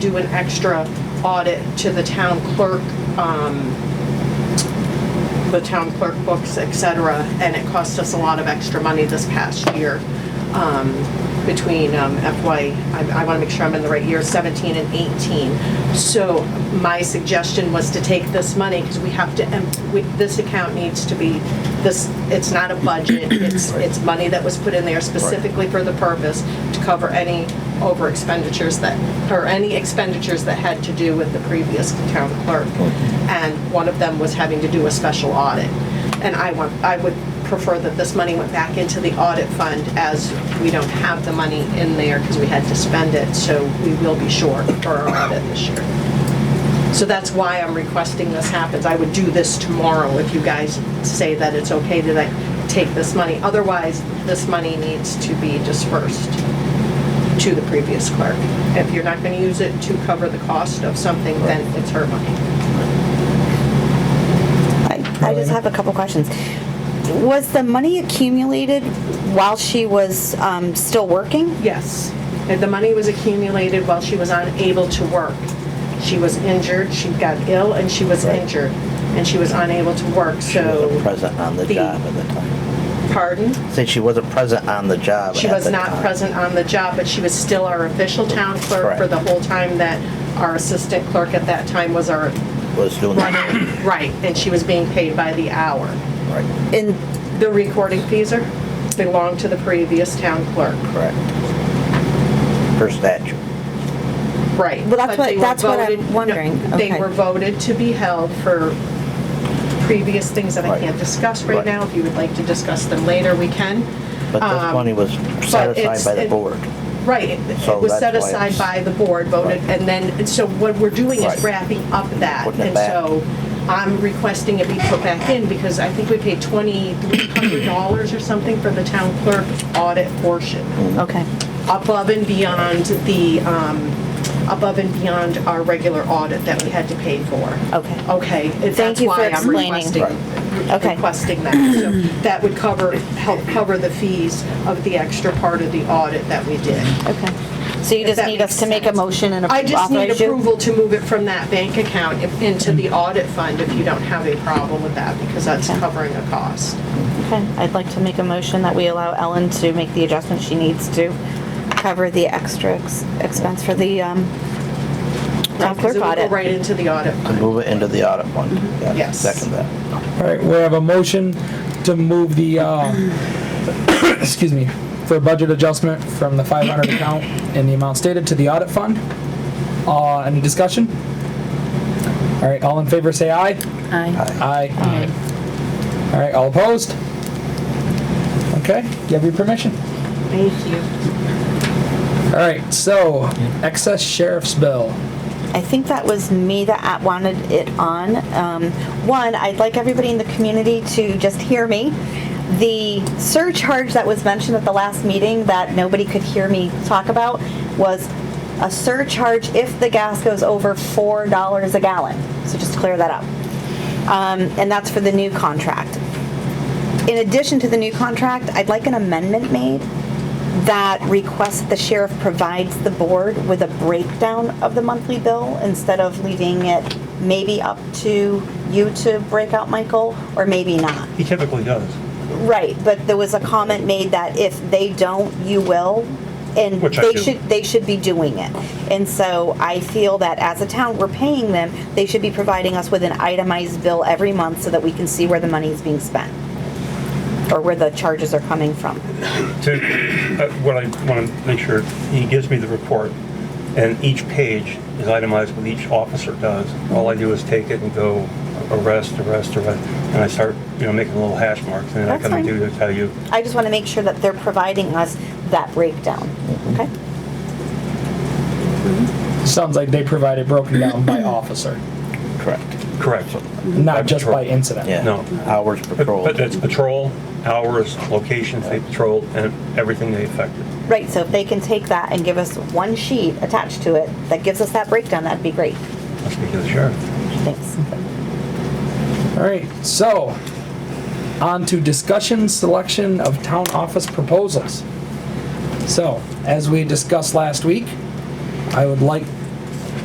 do an extra audit to the town clerk, um, the town clerk books, et cetera, and it cost us a lot of extra money this past year um, between um, FY, I want to make sure I'm in the right year, 17 and 18. So my suggestion was to take this money, because we have to, em- we- this account needs to be, this, it's not a budget, it's, it's money that was put in there specifically for the purpose to cover any over expenditures that, or any expenditures that had to do with the previous town clerk and one of them was having to do a special audit. And I want, I would prefer that this money went back into the audit fund as we don't have the money in there because we had to spend it, so we will be short for our audit this year. So that's why I'm requesting this happens. I would do this tomorrow if you guys say that it's okay to like, take this money. Otherwise, this money needs to be dispersed to the previous clerk. If you're not going to use it to cover the cost of something, then it's her money. I I just have a couple questions. Was the money accumulated while she was um, still working? Yes. And The money was accumulated while she was unable to work. She was injured, she got ill, and she was injured, and she was unable to work, wasn't so, present on the the- job at the time. pardon? Said she wasn't present on the job She at was the not time. present on the job, but she was still our official town clerk for Correct. the whole time that our assistant clerk at that time was our Was doing that. running, right, and she was being paid by the hour. Right, In, The recording fees are, belonged to the previous town clerk. correct. Per statute. Right. Well, that's but what- they were that's what I'm voted- no, wondering. They Okay. were voted to be held for previous things that I Right. can't discuss right Right. now. If you would like to discuss them later, we can. But this money was set Um, it's- aside by it- the board. Right, it So it was set that's why aside it's- by the board, voted, Right. and then, and so what we're doing is Right. wrapping up that. Putting it back. And so I'm requesting it be put back in because I think we paid $2,300 or something for the town clerk audit portion Mm-hmm. okay. above and beyond the, um, above and beyond our regular audit that we had to pay for. Okay. Okay, it- Thank that's you for why I'm explaining. requesting, Okay. requesting that. So That would cover, help cover the fees of the extra part of the audit that we did. Okay. So you just that need us makes to make a sense. motion and I just need authorize you? approval to move it from that bank account if- into the audit fund if you don't have a problem with that, because that's Okay. covering a cost. Okay, I'd like to make a motion that we allow Ellen to make the adjustment she needs to cover the extra ex- expense for the um, town Because clerk it would go audit. Right into the audit To fund. move it into the audit fund. Yeah, Mm-hmm. Yes. Second that. All right, we have a motion to move the, uh, excuse me, for budget adjustment from the 500 account in the amount stated to the audit fund. Uh, Any discussion? All right, all in favor, say aye. Aye. Aye. All right, all opposed? Okay, you have your permission. Thank you. All right, so excess sheriff's bill. I think that was me that at- wanted it on. Um, One, I'd like everybody in the community to just hear me. The surcharge that was mentioned at the last meeting that nobody could hear me talk about was a surcharge if the gas goes over $4 a gallon. So just to clear that up. Um, And that's for the new contract. In addition to the new contract, I'd like an amendment made that requests the sheriff provides the board with a breakdown of the monthly bill instead of leaving it maybe up to you to break out, Michael, or maybe not. He typically does. Right, but there was a comment made that if they don't, you will. And Which I they do. should, they should be doing it. And so I feel that as a town, we're paying them, they should be providing us with an itemized bill every month so that we can see where the money is being spent. Or where the charges are coming from. To, uh, what I want to make sure, he gives me the report, and each page is itemized what each officer does. All I do is take it and go arrest, arrest, arrest, and I start, you know, making little hash marks, and then I That's come and fine. do to tell you, I just want to make sure that they're providing us that breakdown, okay? Sounds like they provided broken down by officer, Correct. correct. not just by incident. Yeah. No. Hours But patrol. but that's patrol, hours, locations they patrolled, and everything they affected. Right, so if they can take that and give us one sheet attached to it that gives us that breakdown, that'd be great. Let's speak to the sheriff. Thanks. All right, so on to discussion selection of town office proposals. So, as we discussed last week, I would like